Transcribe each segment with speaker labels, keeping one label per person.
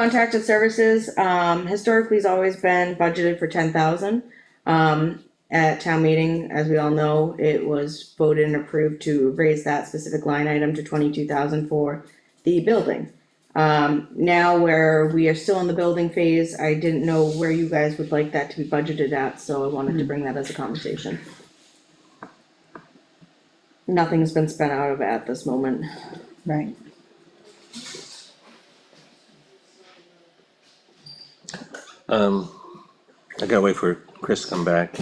Speaker 1: Contracted services, um, historically has always been budgeted for ten thousand. Um, at town meeting, as we all know, it was voted and approved to raise that specific line item to twenty-two thousand for the building. Um, now where we are still in the building phase, I didn't know where you guys would like that to be budgeted at, so I wanted to bring that as a conversation. Nothing's been spent out of it at this moment.
Speaker 2: Right.
Speaker 3: Um, I gotta wait for Chris to come back.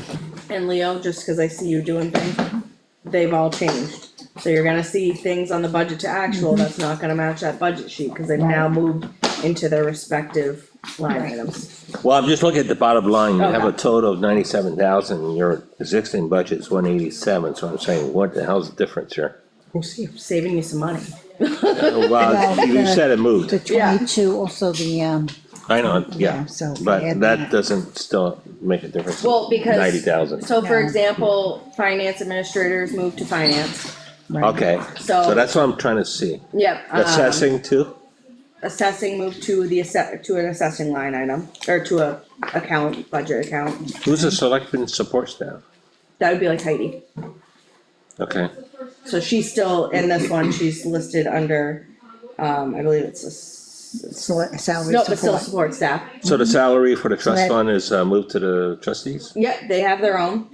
Speaker 1: And Leo, just cause I see you doing things, they've all changed. So you're gonna see things on the budget to actual that's not gonna match that budget sheet, cause they've now moved into their respective line
Speaker 2: Right.
Speaker 1: items.
Speaker 3: Well, I'm just looking at the bottom line, you have a
Speaker 1: Okay.
Speaker 3: total of ninety-seven thousand, your existing budget's one eighty-seven, so I'm saying, what the hell's the difference here?
Speaker 1: We'll see, saving you some money.
Speaker 3: Well, you you said it moved,
Speaker 2: The
Speaker 1: Yeah.
Speaker 2: twenty-two, also the, um,
Speaker 3: I know,
Speaker 2: Yeah,
Speaker 3: yeah,
Speaker 2: so if you
Speaker 3: but
Speaker 2: add
Speaker 3: that
Speaker 2: that-
Speaker 3: doesn't still make a difference.
Speaker 1: Well, because-
Speaker 3: Ninety thousand,
Speaker 1: So for
Speaker 2: Yeah.
Speaker 1: example, finance administrators moved to finance,
Speaker 2: right.
Speaker 3: okay, so
Speaker 1: So-
Speaker 3: that's what I'm trying to see,
Speaker 1: yep. um,
Speaker 3: assessing too?
Speaker 1: Assessing moved to the assess, to an assessing line item, or to a account, budget account,
Speaker 3: Who's the selectmen support staff?
Speaker 1: that would be like Heidi.
Speaker 3: Okay,
Speaker 1: So she's still, in this one, she's listed under, um, I believe it's a. s-
Speaker 2: Sel- Salary
Speaker 1: No, but still support
Speaker 2: support,
Speaker 1: staff,
Speaker 3: so the salary for the trust
Speaker 2: that-
Speaker 3: fund is uh, moved to the trustees?
Speaker 1: yep, they have their own.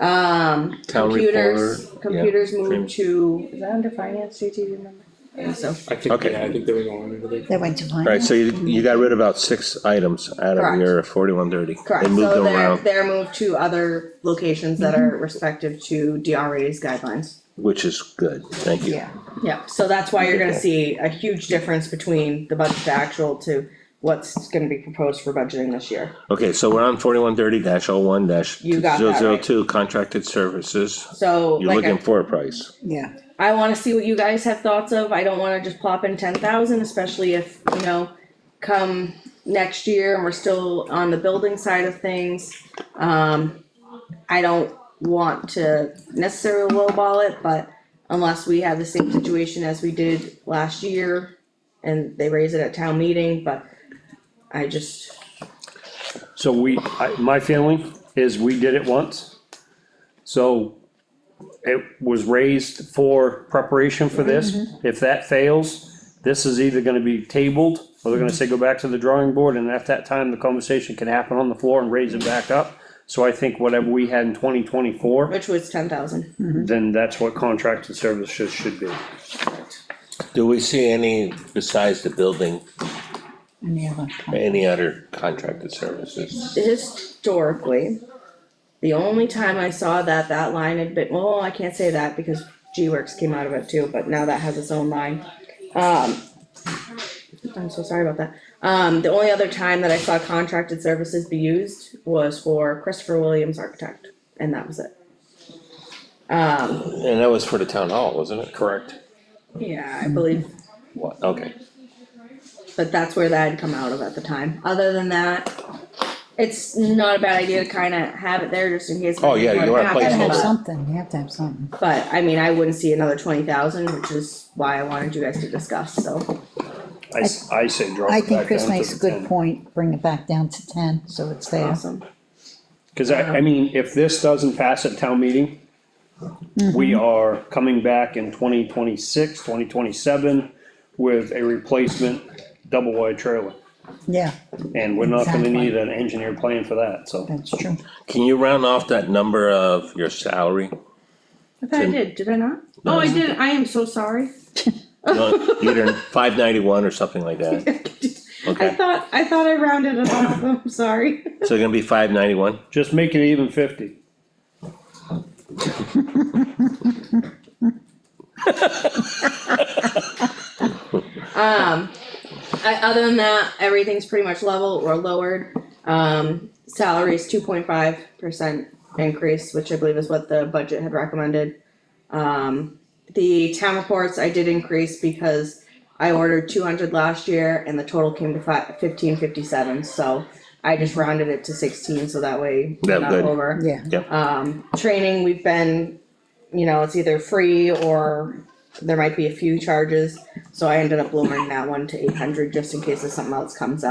Speaker 1: Um,
Speaker 3: Town
Speaker 1: computers,
Speaker 3: reporter, yeah.
Speaker 1: computers
Speaker 3: Dream.
Speaker 1: moved to, is that under finance, JT, do you remember? I think so.
Speaker 4: I think,
Speaker 3: Okay.
Speaker 4: yeah, I think they were going into the.
Speaker 2: that went to
Speaker 3: Alright,
Speaker 2: finance,
Speaker 3: so you, you got rid of about six items out of
Speaker 1: Correct.
Speaker 3: your forty-one thirty.
Speaker 1: Correct,
Speaker 3: They moved
Speaker 1: so
Speaker 3: them
Speaker 1: they're,
Speaker 3: around,
Speaker 1: they're moved to other locations that are respective to DRA's guidelines.
Speaker 3: which is good, thank you.
Speaker 2: yeah,
Speaker 1: Yep, so that's why you're gonna
Speaker 3: Okay.
Speaker 1: see a huge difference between the budget to actual to what's gonna be proposed for budgeting this year.
Speaker 3: Okay, so we're on forty-one thirty dash oh one dash
Speaker 1: You got
Speaker 3: zero
Speaker 1: that
Speaker 3: zero
Speaker 1: right.
Speaker 3: two, contracted services.
Speaker 1: So
Speaker 3: You're
Speaker 1: like,
Speaker 3: looking
Speaker 1: I,
Speaker 3: for a price.
Speaker 2: yeah,
Speaker 1: I wanna see what you guys have thoughts of, I don't wanna just plop in ten thousand, especially if, you know, come next year and we're still on the building side of things, um, I don't want to necessarily lowball it, but unless we have the same situation as we did last year and they raise it at town meeting, but I just,
Speaker 5: So we, I, my feeling is we did it once. So it was raised for preparation for this.
Speaker 2: Mm-hmm.
Speaker 5: If that fails, this is either gonna be tabled or they're gonna say, go back to the drawing board and at that time, the conversation can happen on the floor and raise it back up. So I think whatever we had in twenty twenty-four,
Speaker 1: which was ten thousand.
Speaker 2: Mm-hmm.
Speaker 5: then that's what contracted services should be.
Speaker 3: Do we see any, besides the building,
Speaker 2: and the other.
Speaker 3: any other contracted services?
Speaker 1: historically, the only time I saw that, that line had been, well, I can't say that because G-Works came out of it too, but now that has its own line. Um, I'm so sorry about that. Um, the only other time that I saw contracted services be used was for Christopher Williams Architect, and that was it. Um,
Speaker 3: And that was for the town hall, wasn't it? Correct.
Speaker 1: yeah, I believe
Speaker 3: What, okay,
Speaker 1: But that's where that had come out of at the time. Other than that, it's not a bad idea to kinda have it there just in case.
Speaker 3: Oh, yeah, you want
Speaker 1: something
Speaker 3: a
Speaker 2: You
Speaker 3: placeholder.
Speaker 2: gotta have
Speaker 1: happens.
Speaker 2: something, you have to have something,
Speaker 1: But I mean, I wouldn't see another twenty thousand, which is why I wanted you guys to discuss, so.
Speaker 5: I, s- I say drop
Speaker 2: I
Speaker 5: it
Speaker 2: think
Speaker 5: back down
Speaker 2: Chris
Speaker 5: to
Speaker 2: makes
Speaker 5: the Uh-huh.
Speaker 2: a good
Speaker 5: 10.
Speaker 2: point, bring it back down to ten, so it's there,
Speaker 1: Awesome.
Speaker 5: Cause I, I mean, if this doesn't pass at town meeting, we
Speaker 2: Mm-hmm.
Speaker 5: are coming back in 2026, 2027 with a replacement double wide trailer.
Speaker 2: yeah,
Speaker 5: And we're not gonna
Speaker 2: Exactly.
Speaker 5: need an engineer plan for that, so.
Speaker 2: that's true.
Speaker 3: can you round off that number of your salary?
Speaker 1: I thought I did, did I not? Oh, I did, I am so sorry.
Speaker 3: No, Either five ninety-one or something like that?
Speaker 1: I
Speaker 3: Okay,
Speaker 1: thought, I thought I rounded it off, I'm sorry.
Speaker 3: so it's gonna be five ninety-one?
Speaker 5: Just make it even fifty.
Speaker 1: Um, I, other than that, everything's pretty much level or lowered. Um, salaries two point five percent increase, which I believe is what the budget had recommended. Um, the town reports I did increase because I ordered two hundred last year and the total came to fi- fifteen fifty-seven, so I just rounded it to sixteen, so that way
Speaker 3: Yeah,
Speaker 1: we're not
Speaker 3: good.
Speaker 1: over.
Speaker 2: Yeah,
Speaker 3: Yep,
Speaker 1: Um, training, we've been, you know, it's either free or there might be a few charges, so I ended up lowering that one to eight hundred, just in case if something else comes up.